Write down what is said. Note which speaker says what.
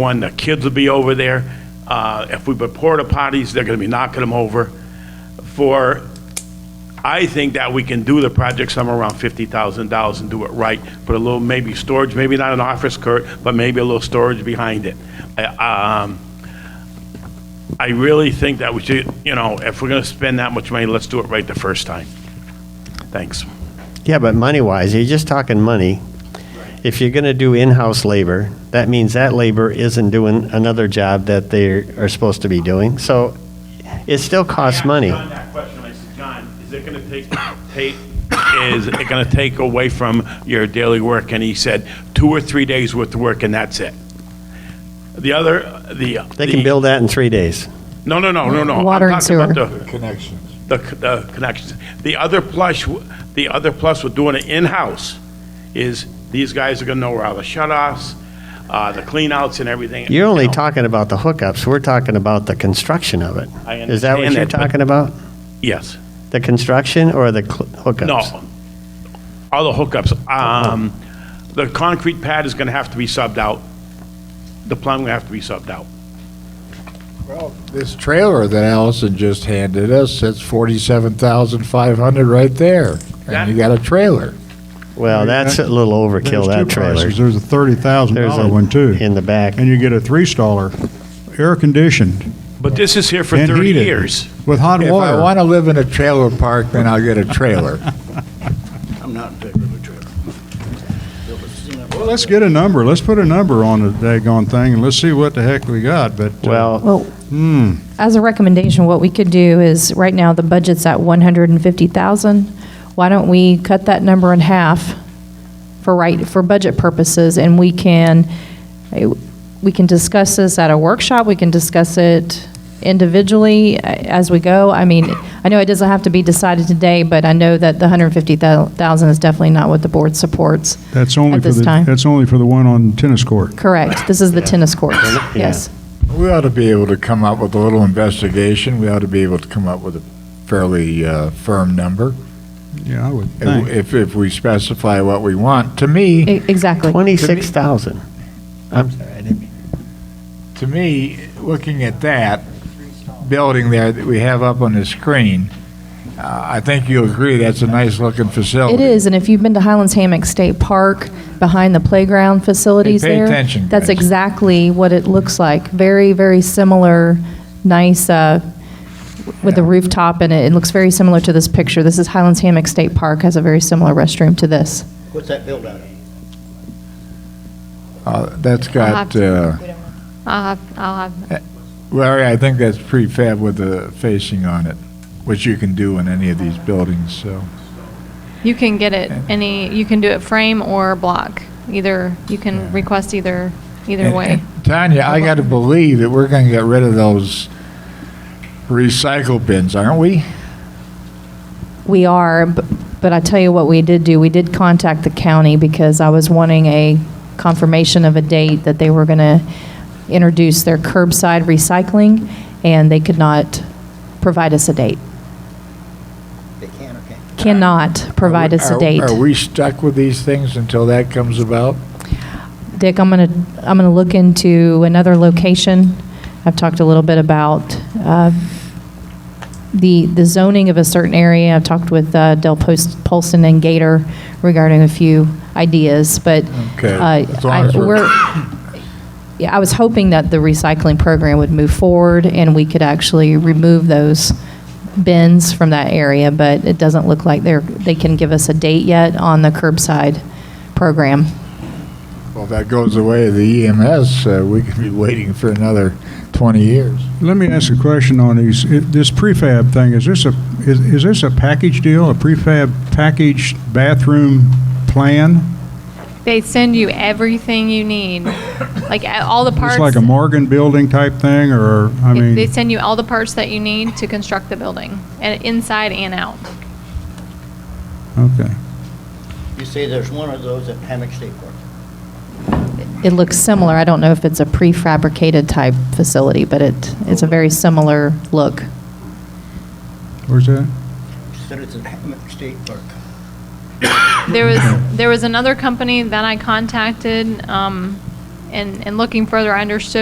Speaker 1: One, the kids will be over there. Uh, If we put porta potties, they're going to be knocking them over. For, I think that we can do the project somewhere around $50,000 and do it right. Put a little maybe storage, maybe not an office, Kurt, but maybe a little storage behind it. I- um, I really think that we should, you know, if we're going to spend that much money, let's do it right the first time. Thanks.
Speaker 2: Yeah, but money wise, you're just talking money. If you're going to do in house labor, that means that labor isn't doing another job that they are supposed to be doing. So it still costs money.
Speaker 1: On that question, I said, John, is it going to take, take, is it going to take away from your daily work? And he said, two or three days worth of work and that's it. The other, the.
Speaker 2: They can build that in three days.
Speaker 1: No, no, no, no, no. I'm
Speaker 3: Water and
Speaker 1: talking about
Speaker 3: sewer.
Speaker 1: the-
Speaker 4: Connections.
Speaker 1: the, the connections. The other plus, the other plus with doing it in-house is these guys are gonna know where all the shut-offs, uh, the clean-outs and everything.
Speaker 2: You're only
Speaker 1: you know.
Speaker 2: talking about the hookups. We're talking about the construction of it.
Speaker 1: I
Speaker 2: Is that what
Speaker 1: understand
Speaker 2: you're
Speaker 1: that, but-
Speaker 2: talking about?
Speaker 1: Yes.
Speaker 2: The construction or the cl- hookups?
Speaker 1: No. All the hookups. Um, the concrete pad is gonna have to be subbed out. The plumbing will have to be subbed out.
Speaker 4: Well, this trailer that Allison just handed us, that's forty-seven thousand five hundred right there.
Speaker 1: That-
Speaker 4: And you got a trailer.
Speaker 2: Well, that's a little overkill,
Speaker 5: There's
Speaker 2: that
Speaker 5: two
Speaker 2: trailer.
Speaker 5: prices. There's a thirty thousand
Speaker 2: There's
Speaker 5: dollar one too,
Speaker 2: in the back.
Speaker 5: and you get a three staller, air conditioned
Speaker 1: But this is here for
Speaker 5: and
Speaker 1: thirty
Speaker 5: heated
Speaker 1: years.
Speaker 5: with hot
Speaker 4: If I
Speaker 5: water.
Speaker 4: want to live in a trailer park, then I'll get a trailer.
Speaker 6: I'm not in favor of a trailer.
Speaker 5: Well, let's get a number. Let's put a number on the daggone thing and let's see what the heck we got. But uh,
Speaker 2: Well,
Speaker 3: Well,
Speaker 2: Hmm.
Speaker 3: as a recommendation, what we could do is, right now, the budget's at 150,000. Why don't we cut that number in half for right, for budget purposes, and we can, eh, we can discuss this at a workshop, we can discuss it individually a- as we go. I mean, I know it doesn't have to be decided today, but I know that the 150,000 is definitely not what the board supports.
Speaker 5: that's only
Speaker 3: at
Speaker 5: for
Speaker 3: this
Speaker 5: the
Speaker 3: time.
Speaker 5: that's only for the one on tennis court.
Speaker 3: Correct, this is the tennis courts,
Speaker 2: Yeah.
Speaker 3: yes.
Speaker 4: We ought to be able to come up with a little investigation. We ought to be able to come up with a fairly uh, firm number.
Speaker 5: Yeah, I would think.
Speaker 4: If, if we specify what we want. To me,
Speaker 3: E- Exactly.
Speaker 2: twenty-six thousand. I'm sorry, I didn't mean.
Speaker 4: to me, looking at that building there that we have up on the screen, uh, I think you'll agree that's a nice-looking facility.
Speaker 3: It is, and if you've been to Highlands Hammock State Park, behind the playground facilities
Speaker 4: Hey, pay
Speaker 3: there.
Speaker 4: attention,
Speaker 3: That's
Speaker 4: guys.
Speaker 3: exactly what it looks like. Very, very similar, nice, uh, with a rooftop in it. It looks very similar to this picture. This is Highlands Hammock State Park, has a very similar restroom to this.
Speaker 6: What's that build out of?
Speaker 4: Uh, That's
Speaker 7: I'll have
Speaker 4: got, uh, eh,
Speaker 7: to- I'll have, I'll have,
Speaker 4: Larry, I think that's prefab with the facing on it, which you can do in any of these buildings, so.
Speaker 7: you can get it any, you can do it frame or block, either, you can request either, either
Speaker 4: And-
Speaker 7: way.
Speaker 4: and Tanya, I got to believe that we're going to get rid of those recycle bins, aren't we?
Speaker 3: We are, b- but I tell you what we did do, we did contact the county because I was wanting a confirmation of a date that they were going to introduce their curbside recycling, and they could not provide us a date,
Speaker 6: They can or can't?
Speaker 3: cannot provide us
Speaker 4: Are-
Speaker 3: a date.
Speaker 4: Are we stuck with these things until that comes about?
Speaker 3: Dick, I'm going to, I'm going to look into another location. I've talked a little bit about uh, the, the zoning of a certain area. I've talked with uh, Del Post- Polson and Gator regarding a few ideas, but
Speaker 4: Okay,
Speaker 3: uh,
Speaker 4: as long
Speaker 3: I-
Speaker 4: as we're-
Speaker 3: we're, yeah, I was hoping that the recycling program would move forward and we could actually remove those bins from that area, but it doesn't look like they're, they can give us a date yet on the curbside program.
Speaker 4: Well, if that goes away, the EMS, uh, we could be waiting for another 20 years.
Speaker 5: Let me ask a question on these, i- this prefab thing, is this a, is is this a package deal, a prefab package bathroom plan?
Speaker 7: They send you everything you need, like a- all the parts.
Speaker 5: It's like a Morgan building type thing, or, I
Speaker 7: They-
Speaker 5: mean?
Speaker 7: They send you all the parts that you need to construct the building, and inside and out.
Speaker 5: Okay.
Speaker 6: You say there's one of those at Hammock State Park.
Speaker 3: It looks similar. I don't know if it's a prefabricated type facility, but it, it's a very similar look.
Speaker 5: Where's that?
Speaker 6: Said it's at Hammock State Park.
Speaker 7: There was, there was another company that I contacted, um, and, and looking further, I understood